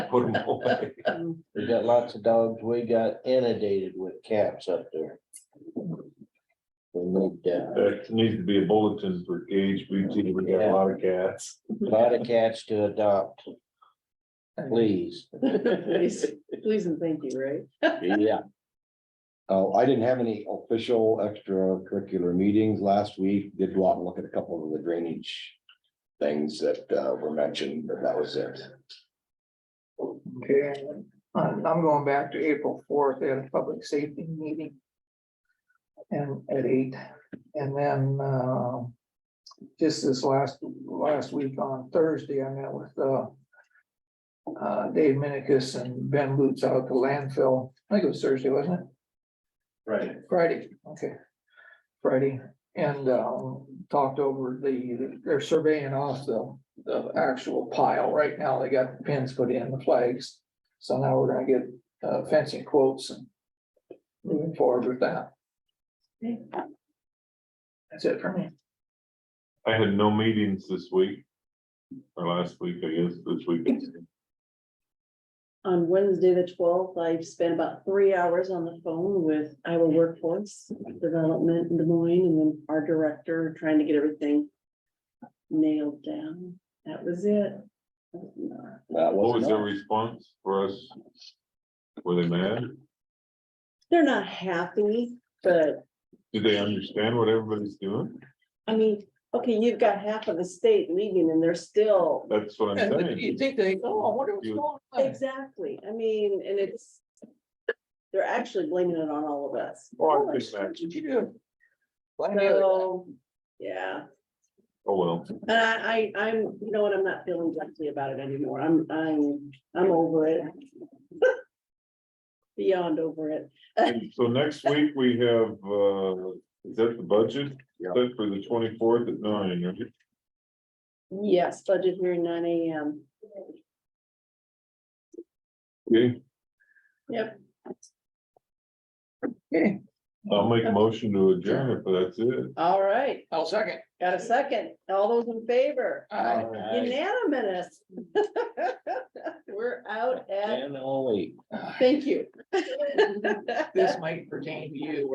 put them away. We got lots of dogs. We got inundated with cats up there. We need uh, That needs to be a bulletin for HBT, we got a lot of cats. a lot of cats to adopt. Please, Please, please and thank you, right? yeah. Uh, I didn't have any official extracurricular meetings last week, did go out and look at a couple of the drainage. Things that uh, were mentioned, but that was it. Okay, I'm I'm going back to April fourth, they had a public safety meeting. And at eight, and then, uh, just this last, last week on Thursday, I met with, uh. Uh, Dave Minicus and Ben Boots out at the landfill, I think it was Thursday, wasn't it? Right. Friday, okay. Friday, and, um, talked over the, they're surveying off the, the actual pile right now. They got pins put in the flags. So now we're gonna get uh, fencing quotes and moving forward with that. That's it for me. I had no meetings this week. Or last week, I guess, this week. On Wednesday, the twelfth, I spent about three hours on the phone with Iowa Workforce Development in Des Moines and then our director trying to get everything nailed down. That was it. That What was was their enough. response for us? Were they mad? They're not happy, but Did they understand what everybody's doing? I mean, okay, you've got half of the state leaving and they're still That's what I'm And saying. you think they, oh, I wonder what's You- going on. Exactly, I mean, and it's. They're actually blaming it on all of us. Oh, I What think that- did you do? Blame the other guy. So, yeah, Oh, well, and I, I, I'm, you know what, I'm not feeling guilty about it anymore, I'm, I'm, I'm over it. Beyond over it, And so next week we have, uh, is that the budget? Yeah. Set for the twenty-fourth at nine, right? yes, budget hearing nine AM, Okay, yep, Okay, I'll make a motion to adjourn if that's it. all right, I'll second. got a second, all those in favor? Aye. Unanimous. We're out at, And only. thank you. This might pertain to you.